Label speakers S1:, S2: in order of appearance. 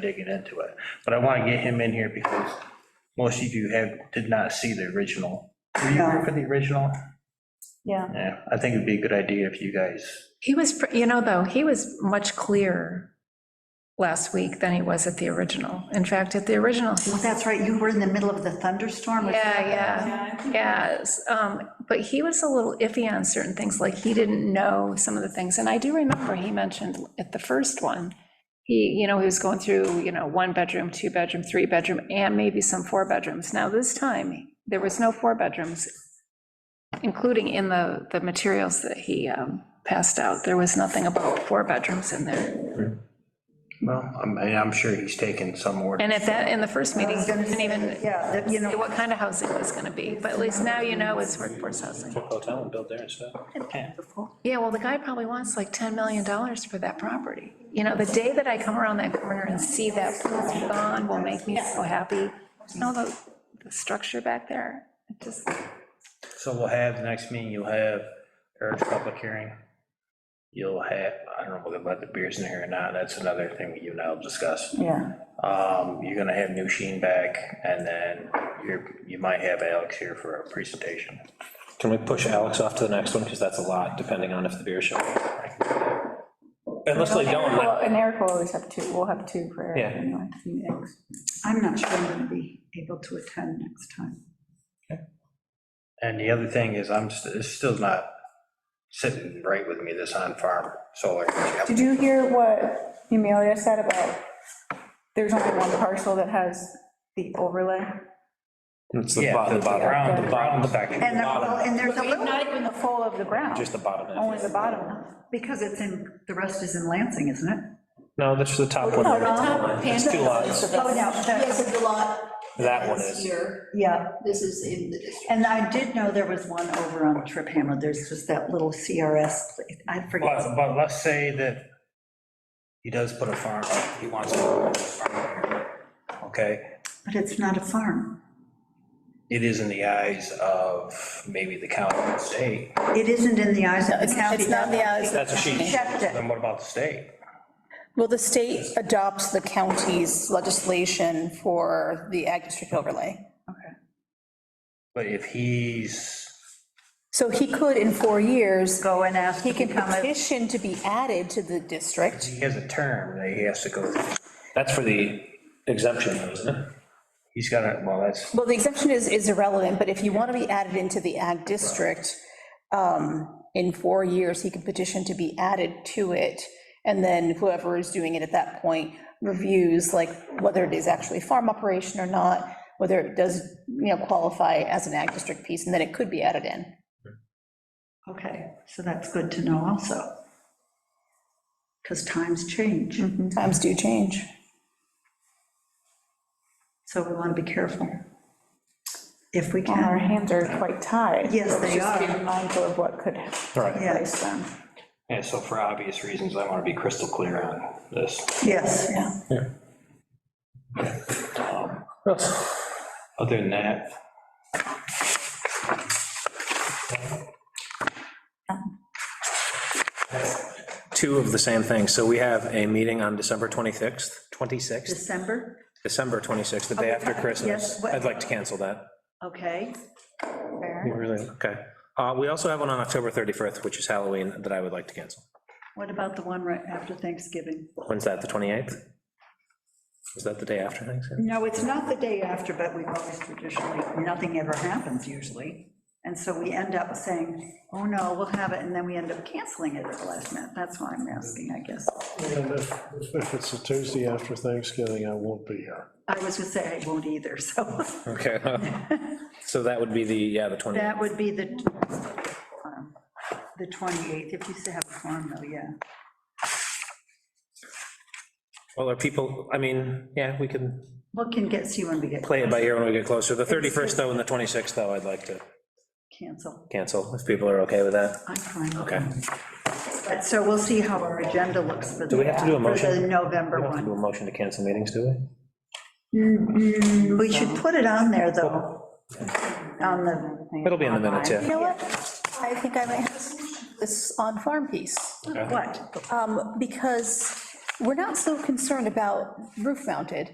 S1: digging into it. But I want to get him in here because most of you have, did not see the original. Were you here for the original?
S2: Yeah.
S1: Yeah, I think it'd be a good idea if you guys,
S3: He was, pre- you know, though, he was much clearer last week than he was at the original. In fact, at the original, he-
S2: Well, that's right, you were in the middle of the thunderstorm. or
S3: yeah,
S2: something.
S3: yeah, yes. um, But he was a little iffy on certain things, like he didn't know some of the things. And I do remember he mentioned at the first one, he, you know, he was going through, you know, one bedroom, two bedroom, three bedroom, and maybe some four bedrooms. Now, this time, there was no four bedrooms, including in the, the materials that he um, passed out. There was nothing about four bedrooms in there.
S1: well, I'm, I'm sure he's taken some order.
S3: And at that, in the first meeting,
S2: I was
S3: you
S2: gonna
S3: didn't
S2: say,
S3: even
S2: Yeah, that, you
S3: say
S2: know,
S3: what kind of housing it was gonna be, but at least now you know it's workforce housing.
S4: hotel and build there instead.
S3: Yeah, well, the guy probably wants like $10 million for that property. You know, the day that I come around that corner and see that pool gone will make me so happy. You know, the, the structure back there, it just,
S1: So we'll have, the next meeting, you'll have Eric's public hearing. You'll have, I don't know whether about the beers in here or not, that's another thing that you and I will discuss.
S2: yeah,
S1: Um, You're gonna have New Sheen back, and then you're, you might have Alex here for a presentation.
S4: Can we push Alex off to the next one, because that's a lot, depending on if the beer show. Unless they don't,
S5: Well,
S4: like-
S5: and Eric will always have two, we'll have two for Eric.
S4: Yeah.
S5: anyway, next.
S2: I'm not sure I'm going to be able to attend next time.
S1: And the other thing is, I'm, st- it's still not sitting right with me, this on-farm solar.
S5: Did you hear what Amelia said about, there's only one parcel that has the overlay?
S4: It's the
S1: Yeah,
S4: bottom,
S1: the
S4: the bottom,
S1: brown, the brown section.
S2: And, there- well, and there's a little,
S5: Not even the full of the ground,
S4: just the bottom.
S5: only
S4: half.
S5: the bottom one.
S2: because it's in, the rest is in Lansing, isn't it?
S4: No, that's the top one. there. It's two lots.
S2: Oh, no, that-
S6: Yes, the lot.
S4: That one is.
S6: Here,
S2: yeah,
S6: this is in the district.
S2: and I did know there was one over on Trip Hammer, there's just that little CRS, place. I
S1: But,
S2: forget.
S1: but let's say that he does put a farm, he wants to. put a farm here, Okay,
S2: But it's not a farm,
S1: it is in the eyes of maybe the county or the state,
S2: it isn't in the eyes of the county.
S7: It's not the eyes.
S4: That's a sheet.
S2: Checked it.
S1: then what about the state?
S7: Well, the state adopts the county's legislation for the ag district overlay.
S1: But if he's,
S7: So he could, in four years,
S2: Go and ask
S7: he
S2: to
S7: can
S2: become a,
S7: petition to be added to the district.
S1: he has a term that he has to go, through.
S4: That's for the exemption, though, isn't it?
S1: he's got to, well, that's,
S7: Well, the exemption is, is irrelevant, but if you want to be added into the ag district, um, in four years, he can petition to be added to it. And then whoever is doing it at that point reviews, like, whether it is actually farm operation or not, whether it does, you know, qualify as an ag district piece, and then it could be added in.
S2: okay, so that's good to know also. Because times change,
S7: Times do change.
S2: so we want to be careful. If we
S5: And our
S2: can,
S5: hands are quite tied.
S2: Yes, they
S5: Just being
S2: are.
S5: Mindful of what could
S4: Right.
S5: place
S2: yes,
S5: them.
S1: and so for obvious reasons, I want to be crystal clear on this.
S2: yes,
S1: Other than that,
S4: Two of the same thing. So we have a meeting on December 26th, 26th,
S2: December,
S4: December 26th, the day after
S2: Yes,
S4: Christmas.
S2: what-
S4: I'd like to cancel that.
S2: okay,
S4: Really? Okay. Uh, We also have one on October 31st, which is Halloween, that I would like to cancel.
S2: what about the one right after Thanksgiving?
S4: When's that, the 28th? Is that the day after Thanksgiving?
S2: No, it's not the day after, but we've always traditionally, nothing ever happens usually, and so we end up saying, oh no, we'll have it, and then we end up canceling it at the last minute, that's why I'm asking, I guess.
S8: And if, if it's a Tuesday after Thanksgiving, I won't be here.
S2: I was gonna say I won't either, so
S4: Okay. So that would be the, yeah, the 28th.
S2: that would be the, um, the 28th, if you still have a form though, yeah.
S4: Well, are people, I mean, yeah, we can
S2: What can get, see when we get
S4: play it by ear when we get closer. The 31st, though, and the 26th, though, I'd like to
S2: canceled,
S4: cancel, if people are okay with that.
S2: I'm fine.
S4: Okay.
S2: But, So we'll see how our agenda looks for the. uh,
S4: Do we have to do a
S2: For the
S4: motion?
S2: November
S4: We don't have to do
S2: one.
S4: a motion to cancel meetings, do we?
S2: Mm, We should put it on there, though. On the,
S4: It'll be in the minutes,
S7: You
S4: yeah.
S7: know what? I think I might have a solution to this on-farm piece,
S2: what?
S7: Um, because we're not so concerned about roof mounted.